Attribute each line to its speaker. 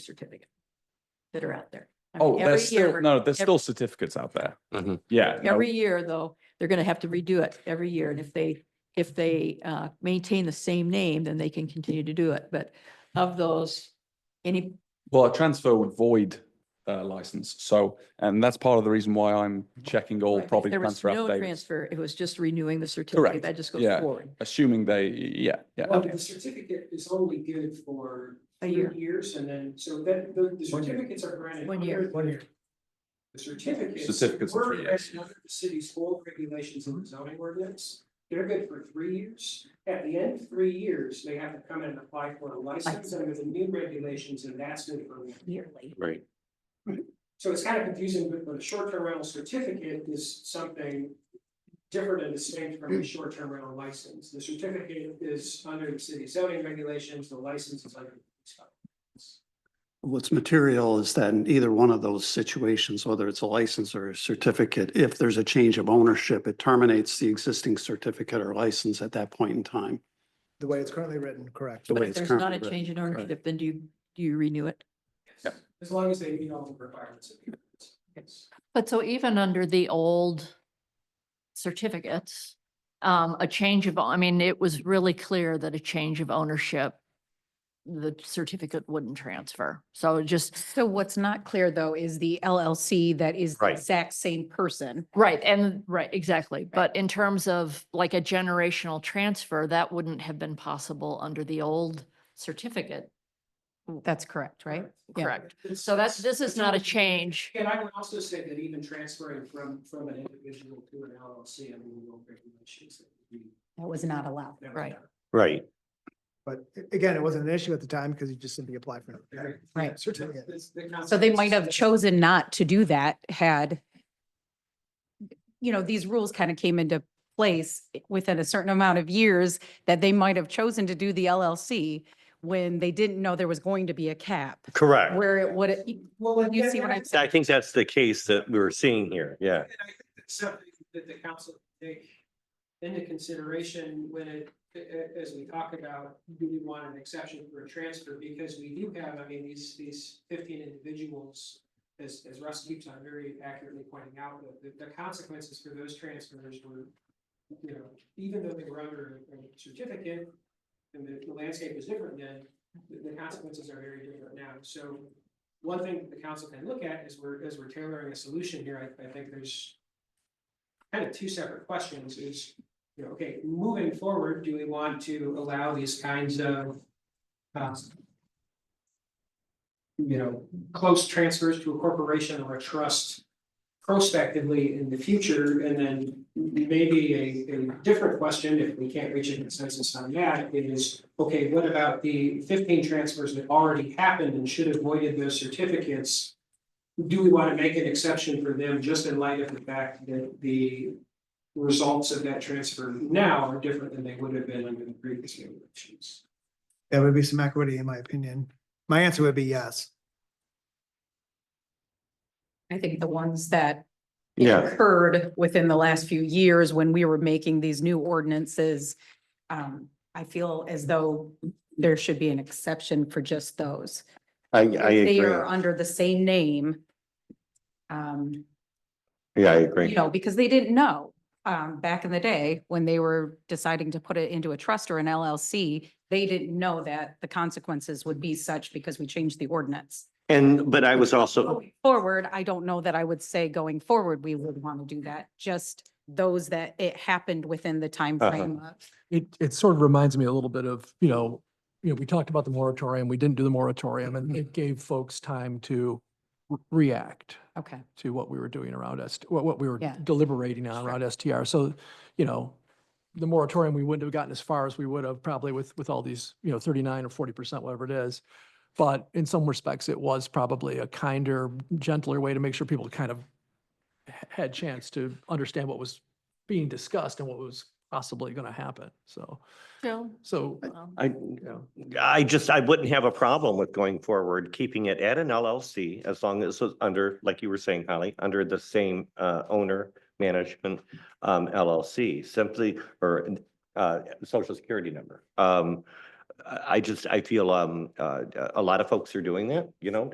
Speaker 1: certificate that are out there. I mean,
Speaker 2: Oh, that's
Speaker 1: every
Speaker 2: still,
Speaker 1: year-
Speaker 2: no, there's
Speaker 1: ev-
Speaker 2: still certificates out there.
Speaker 3: Mhm.
Speaker 2: Yeah. no,
Speaker 1: Every year, though, they're going to have to redo it every year. And if they, if they uh, maintain the same name, then they can continue to do it. But of those, any,
Speaker 2: Well, a transfer would void a license. So, and that's part of the reason why I'm checking all
Speaker 1: if
Speaker 2: property
Speaker 1: there was
Speaker 2: transfer
Speaker 1: no
Speaker 2: updates,
Speaker 1: transfer, it was just renewing the certificate.
Speaker 2: Correct.
Speaker 1: That just goes
Speaker 2: Yeah.
Speaker 1: forward.
Speaker 2: assuming they, yeah, yeah.
Speaker 4: Well, the certificate is only good for
Speaker 1: A
Speaker 4: three
Speaker 1: year.
Speaker 4: years and then, so that, the, the
Speaker 5: One year.
Speaker 4: certificates are granted.
Speaker 1: One year.
Speaker 4: under the- The certificates.
Speaker 2: Certificates are
Speaker 4: were
Speaker 2: three years.
Speaker 4: granted Under the city's old regulations and zoning ordinance, they're good for three years. At the end of three years, they have to come in and apply for a license under the new regulations and that's good for one year.
Speaker 1: Yearly.
Speaker 3: Right.
Speaker 4: So it's kind of confusing, but but a short-term rental certificate is something different and distinct from a short-term rental license. The certificate is under the city zoning regulations, the license is under.
Speaker 5: What's material is that in either one of those situations, whether it's a license or a certificate, if there's a change of ownership, it terminates the existing certificate or license at that point in time.
Speaker 6: The way it's currently written, correct.
Speaker 5: The
Speaker 1: But
Speaker 5: way
Speaker 1: if
Speaker 5: it's
Speaker 1: there's not a
Speaker 5: currently
Speaker 1: change in ownership, then do you, do you renew it?
Speaker 4: As long as they meet all the requirements. of the ordinance.
Speaker 7: But so even under the old certificates, um, a change of, I mean, it was really clear that a change of ownership, the certificate wouldn't transfer. So it just,
Speaker 8: So what's not clear though is the LLC that is the
Speaker 3: Right.
Speaker 8: exact same person.
Speaker 7: right, and, right, exactly. But in terms of like a generational transfer, that wouldn't have been possible under the old certificate,
Speaker 8: That's correct, right? Yeah.
Speaker 7: correct? So that's, this is not a change.
Speaker 4: And I would also say that even transferring from from an individual to an LLC, I mean, no regulations. that we-
Speaker 8: That was not allowed.
Speaker 4: that we
Speaker 7: Right.
Speaker 4: have.
Speaker 3: Right.
Speaker 6: But a- again, it wasn't an issue at the time because you just simply applied for it.
Speaker 8: Right.
Speaker 6: Certificate.
Speaker 4: That's- that's-
Speaker 8: So they might have chosen not to do that had you know, these rules kind of came into place within a certain amount of years that they might have chosen to do the LLC when they didn't know there was going to be a cap
Speaker 3: Correct.
Speaker 8: where it would,
Speaker 4: Well, and
Speaker 8: You
Speaker 4: that-
Speaker 8: see what I'm
Speaker 3: I think that's the case that we were seeing here. Yeah.
Speaker 4: And I think that's something that the council can take into consideration when it, a- a- as we talk about, do we want an exception for a transfer? Because we do have, I mean, these, these fifteen individuals, as, as Russ keeps on very accurately pointing out, the, the- the consequences for those transfers were, you know, even though they were under a a certificate, and the, the landscape was different then, the, the consequences are very different now. So one thing that the council can look at is we're, as we're tailoring a solution here, I, I think there's kind of two separate questions is, you know, okay, moving forward, do we want to allow these kinds of um, you know, close transfers to a corporation or a trust prospectively in the future, and then maybe a, a different question, if we can't reach a consensus on that, is, okay, what about the fifteen transfers that already happened and should have voided those certificates? Do we want to make an exception for them just in light of the fact that the results of that transfer now are different than they would have been under the previous regulations?
Speaker 6: That would be some equity, in my opinion. My answer would be yes.
Speaker 8: I think the ones that
Speaker 3: Yeah.
Speaker 8: occurred within the last few years when we were making these new ordinances. Um, I feel as though there should be an exception for just those.
Speaker 3: I, I
Speaker 8: If They
Speaker 3: agree.
Speaker 8: are under the same name. Um,
Speaker 3: Yeah, I
Speaker 8: you
Speaker 3: agree.
Speaker 8: know, because they didn't know, um, back in the day when they were deciding to put it into a trust or an LLC. They didn't know that the consequences would be such because we changed the ordinance.
Speaker 3: And, but I was also,
Speaker 8: Going Forward, I don't know that I would say going forward, we would want to do that, just those that it happened within the time
Speaker 3: Uh-huh.
Speaker 8: frame of.
Speaker 9: it, it sort of reminds me a little bit of, you know, you know, we talked about the moratorium, we didn't do the moratorium and it gave folks time to re- react
Speaker 8: Okay.
Speaker 9: to what we were doing around us, what, what we were
Speaker 8: Yeah.
Speaker 9: deliberating on
Speaker 8: Sure.
Speaker 9: around STR. So, you know, the moratorium, we wouldn't have gotten as far as we would have probably with, with all these, you know, thirty-nine or forty percent, whatever it is. But in some respects, it was probably a kinder, gentler way to make sure people kind of h- had chance to understand what was being discussed and what was possibly going to happen. So,
Speaker 7: Joe?
Speaker 9: so,
Speaker 7: um,
Speaker 3: I,
Speaker 9: yeah.
Speaker 3: I just, I wouldn't have a problem with going forward, keeping it at an LLC as long as it's under, like you were saying, Holly, under the same uh, owner management um, LLC, simply, or uh, social security number. Um, I I just, I feel um, uh, a lot of folks are doing that, you know,